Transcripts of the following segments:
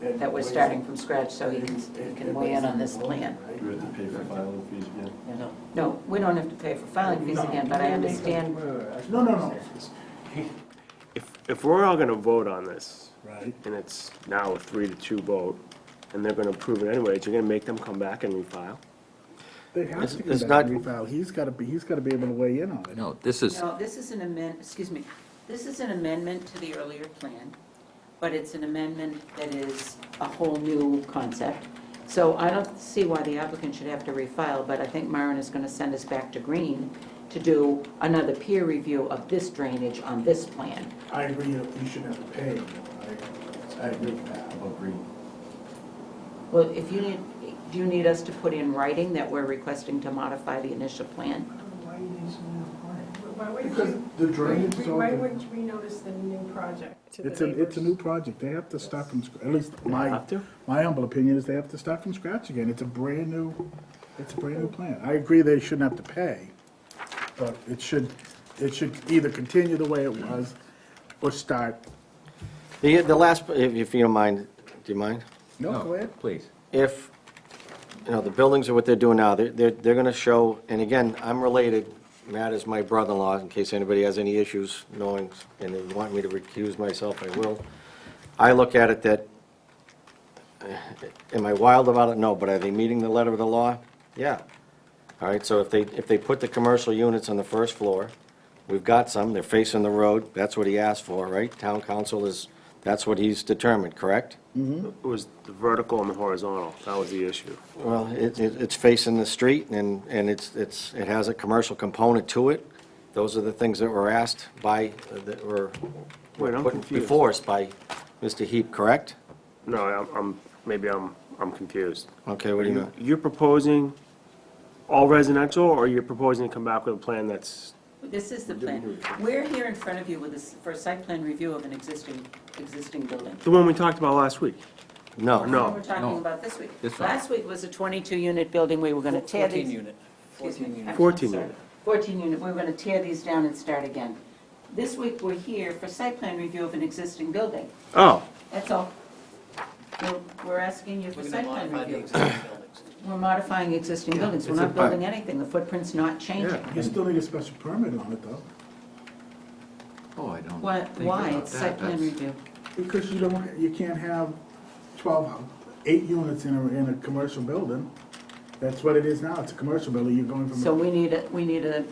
And that we're weigh in. starting from scratch, so he can, he And- can and weigh in on this everybody's plan. involved, Do we have to pay for filing fees again? Yeah. No, we don't have to pay for filing fees again, but I understand, right? No, no, no. If, if we're all gonna vote on this, Right. and it's now a three to two vote, and they're gonna approve it anyways, you're gonna make them come back and refile? They have It's- to come it's back and not- refile. He's gotta be, he's gotta be able to weigh in on it. No, this is, no, this is an amend, excuse me, this is an amendment to the earlier plan, but it's an amendment that is a whole new concept. So I don't see why the applicant should have to refile, but I think Myron is gonna send us back to Green to do another peer review of this drainage on this plan. I agree, you you should have to pay. I- I agree with that. About green. Well, if you need, do you need us to put in writing that we're requesting to modify the initial plan? Why you need some new plan? Why wouldn't Because you, the drainage why wouldn't we notice the new project to the It's a, it's a neighbors? new project. They have to start from, scr- at least my, Have to? my humble opinion is they have to start from scratch again. It's a brand new, it's a brand new plan. I agree they shouldn't have to pay, but it should, it should either continue the way it was or start. The, the last, if if you don't mind, do you mind? No, go ahead. please. If, you know, the buildings are what they're doing now, they're, they're, they're gonna show, and again, I'm related, Matt is my brother-in-law, in case anybody has any issues knowing, and they want me to recuse myself, I will. I look at it that, eh, am I wild about it? No, but are they meeting the letter of the law? Yeah. All right, so if they, if they put the commercial units on the first floor, we've got some, they're facing the road, that's what he asked for, right? Town council is, that's what he's determined, correct? It was the vertical and the horizontal, that was the issue. Well, it, it- it's facing the street and, and it's, it's, it has a commercial component to it. Those are the things that were asked by, that were Wait, I'm put confused. before us by Mr. Heap, correct? No, I'm- I'm, maybe I'm, I'm confused. Okay, what do you mean? You're proposing all residential, or you're proposing to come back with a plan that's, This is the plan. We're here in front of you with this, for a site plan review of an existing, existing building. the one we talked about last week? No. No. We're talking No. about this week. This one. Last week was a 22-unit building, we were going to tear these. 14 unit. excuse me, 14 unit. I'm 14 sorry. unit. 14 unit, we were going to tear these down and start again. This week, we're here for site plan review of an existing building. Oh, That's all. We're- We're asking you for We're gonna site plan modify the review. existing buildings. We're modifying existing buildings, we're it's a not bu- building anything, the footprint's not changing. You still need a special permit on it though, Oh, I don't Why, think why? about it's that. site plan That's- review. because you don't, you can't have twelve, eight units in a, in a commercial building. That's what it is now. It's a commercial building. You're going from. So we need a, we need a,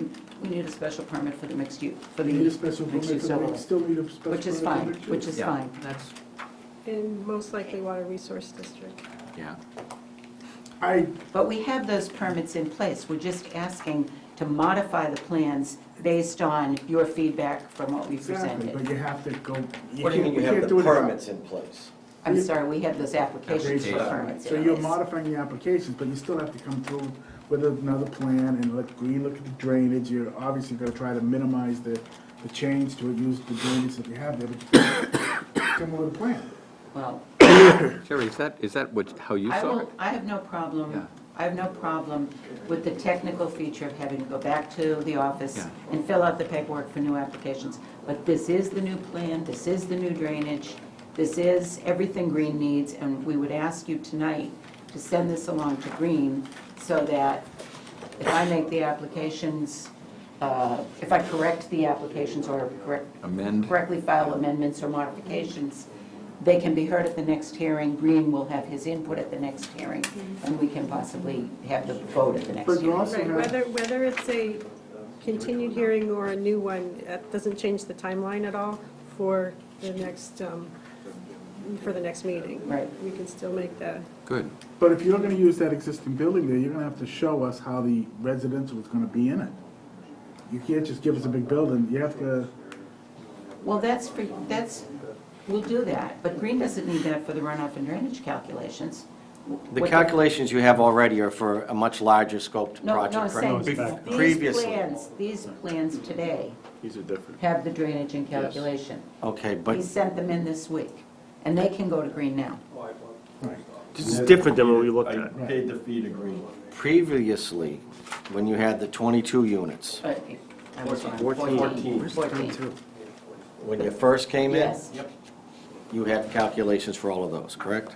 we need a special permit for the mixed use, for the You need a special permit, mixed use for the- overlay, still need a special permit. which is for fine, the two. which is Yeah, fine. That's, And most likely Water Resource District. yeah. I, But we have those permits in place, we're just asking to modify the plans based on your feedback from what we exactly, but presented. you have to go. What do you mean you can't have do the it without- permits in place? I'm sorry, we have those applications for Application. permits. So in you're place. modifying the applications, but you still have to come through with another plan and let Green look at the drainage. You're obviously gonna try to minimize the, the change to use the drainage that you have there, but come with a plan. Well, Jerry, is that, is that what, how you I saw it? will, I have no Yeah. problem, I have no problem with the technical feature of having to go back to the office Yeah. and fill out the paperwork for new applications. But this is the new plan, this is the new drainage, this is everything Green needs, and we would ask you tonight to send this along to Green so that if I make the applications, uh, if I correct the applications or correct, Amend. correctly file amendments or modifications, they can be heard at the next hearing, Green will have his input at the next hearing, and we can possibly have the vote at the next But you hearing. also Right, have, whether, whether it's a continued hearing or a new one, that doesn't change the timeline at all for the next, um, for the next meeting. Right. We can still make the, Good. but if you're gonna use that existing building there, you're gonna have to show us how the residential is gonna be in it. You can't just give us a big building, you have to, Well, that's for, that's, we'll do that, but Green doesn't need that for the runoff and drainage calculations. The What- calculations you have already are for a much larger scoped No, no, I'm project, saying, correct? these Previously. plans, these plans today these are different. have the drainage and calculation. Okay, but, He sent them in this week, and they can go to Green now. This is different than what we looked at. I paid the fee to green. previously, when you had the 22 units, But I was wrong. Fourteen. Where's the Fourteen. time when you first came in, Yes. you had calculations for all of those, correct?